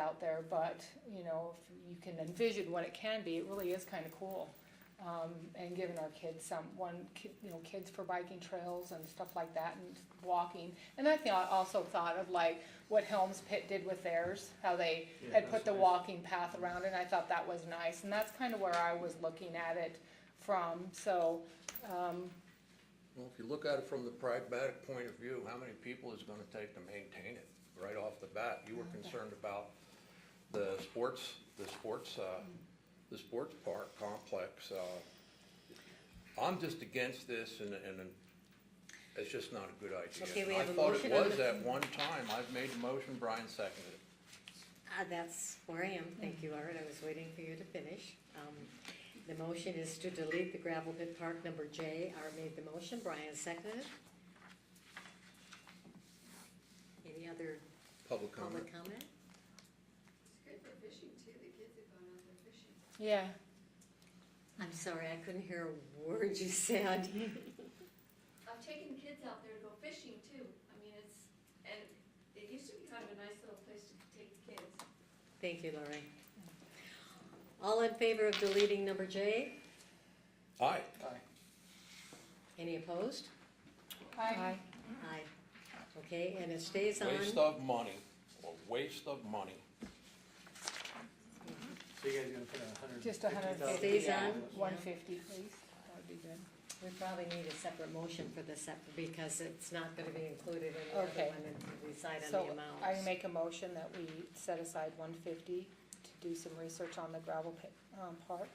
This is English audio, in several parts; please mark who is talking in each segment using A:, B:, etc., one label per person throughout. A: out there, but, you know, if you can envision what it can be, it really is kinda cool. Um, and giving our kids some, one, ki- you know, kids for biking trails and stuff like that and walking. And I thought, also thought of like what Helms Pit did with theirs, how they
B: Yeah,
A: had
B: that's
A: put the
B: nice.
A: walking path around and I thought that was nice. And that's kinda where I was looking at it from, so, um,
C: Well, if you look at it from the pragmatic point of view, how many people is it gonna take to maintain it right off the bat? You were concerned about the sports, the sports, uh, the sports park complex, uh, I'm just against this and, and it's just not a good idea.
D: Okay, we have a motion
C: I
D: on
C: thought it was
D: the-
C: at one time, I've made the motion, Brian seconded it.
D: Uh, that's where I am, thank you, Art, I was waiting for you to finish. Um, the motion is to delete the gravel pit park number J, Art made the motion, Brian seconded. Any other
C: Public comment,
D: public comment?
E: It's good for fishing too, the kids have gone out there fishing.
A: yeah.
D: I'm sorry, I couldn't hear a word you said.
E: I've taken kids out there to go fishing too, I mean, it's, and it used to be kind of a nice little place to take the kids.
D: Thank you, Lori. All in favor of deleting number J?
C: aye.
D: Any opposed?
A: Aye.
D: Aye. Okay, and it stays on.
C: Waste of money, a waste of money.
B: So you guys gonna put a hundred?
A: Just a hundred and fifty.
D: Stays
A: yeah.
D: on?
A: One fifty, please, that would be good.
D: We probably need a separate motion for this, sep- because it's not gonna be included in the other
A: Okay.
D: one, and we decide on
A: So
D: the
A: I
D: amounts.
A: make a motion that we set aside one fifty to do some research on the gravel pit, um, park.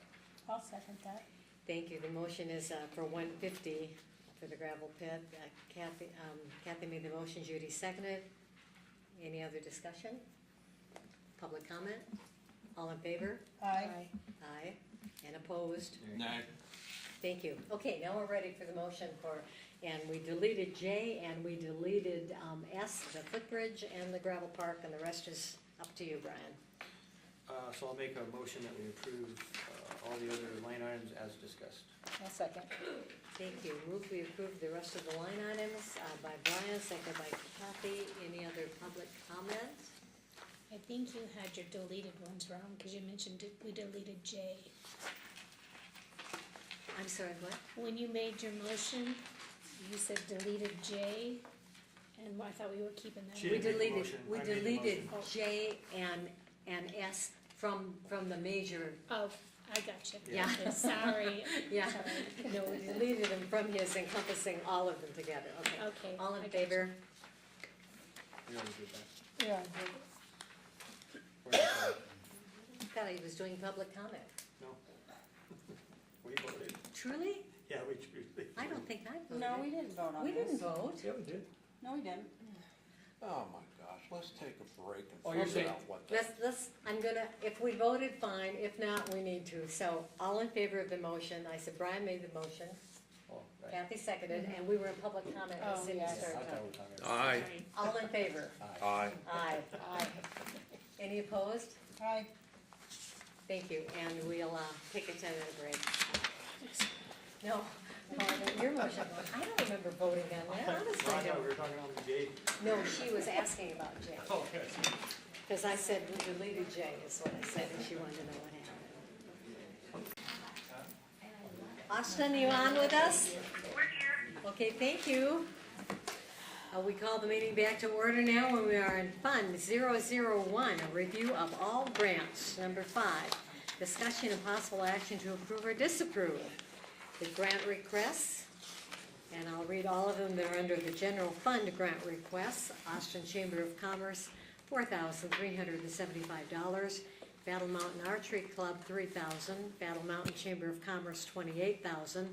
F: I'll second that.
D: Thank you, the motion is, uh, for one fifty for the gravel pit, Uh, Kathy, um, Kathy made the motion, Judy seconded. Any other discussion? Public comment? All in favor?
F: Aye.
D: Aye, and opposed?
C: Nay.
D: Thank you. Okay, now we're ready for the motion for, and we deleted J, and we deleted, um, S, the footbridge, and the gravel park, and the rest is up to you, Brian.
B: Uh, so I'll make a motion that we approve, uh, all the other line items as discussed.
A: I'll second.
D: Thank you. Move we approve the rest of the line items uh, by Brian, second by Kathy. Any other public comment?
F: I think you had your deleted ones wrong, because you mentioned it- we deleted J.
D: I'm sorry, what?
F: When you made your motion, you said deleted J, and I thought we were keeping that.
B: She
D: We
B: didn't make the
D: deleted,
B: motion.
D: we
B: I made the
D: deleted
F: motion.
D: J and, and S from, from the major,
F: Oh, I got you.
D: Yeah.
F: Okay, Sorry.
D: yeah.
F: Sorry.
D: No, we deleted them from his encompassing all of them together, okay.
F: Okay.
D: All
F: I
D: in
F: got
D: favor?
B: We already did that.
A: Yeah.
B: Where is that?
D: Thought he was doing public comment.
B: No? We voted.
D: Truly?
B: Yeah, we truly.
D: I don't think I voted.
G: No, we didn't vote on
D: We
G: this.
D: didn't vote.
B: Yeah, we did.
G: No, we didn't.
C: Oh my gosh, let's take a break
B: Oh,
C: and
B: you're
C: figure
B: saying-
C: out what the
D: Let's, let's, I'm gonna, if we voted, fine, if not, we need to, so, all in favor of the motion, I said Brian made the motion,
B: Oh, right.
D: Kathy seconded, and we were in public comment, as
A: Mm-hmm. Oh,
D: soon
A: yes.
D: as
B: Yeah,
D: we
B: I
D: started
B: thought we
D: talking.
B: were talking about-
C: Aye,
D: All in favor?
C: aye.
D: Aye.
A: Aye.
D: Any opposed?
G: Aye.
D: Thank you, and we'll, uh, take a ten-minute break. No, no, your motion, I don't remember voting on that, honestly, I
B: Right,
D: don't.
B: we were talking on the J.
D: No, she was asking about Jay,
B: Okay.
D: because I said we deleted Jay, is what I said, and she wanted to know what happened. Austin, you on with us? We're here. Okay, thank you. Uh, we call the meeting back to order now, and we are in Fund 001, a review of all grants, number five. Discussion of possible action to approve or disapprove the grant requests. And I'll read all of them, they're under the general fund grant requests, Austin Chamber of Commerce, four thousand three hundred and seventy-five dollars, Battle Mountain Archery Club, three thousand, dollars Battle Mountain Chamber of Commerce, twenty-eight thousand,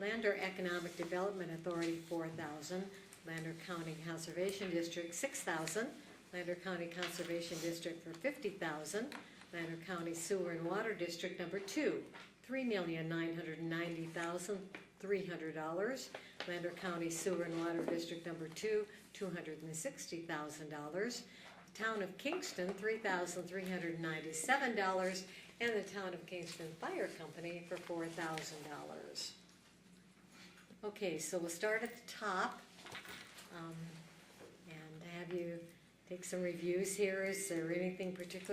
D: dollars Lander Economic Development Authority, four thousand, dollars Lander County Conservation District, six thousand, dollars Lander County Conservation District for fifty thousand, dollars Lander County Sewer and Water District number two, three million nine hundred ninety thousand three hundred dollars. Lander County Sewer and Water District number two, two hundred and sixty thousand dollars. Town of Kingston, three thousand three hundred ninety-seven dollars, and the Town of Kingston Fire Company for four thousand dollars. Okay, so we'll start at the top. um, And have you take some reviews here. Is there anything particular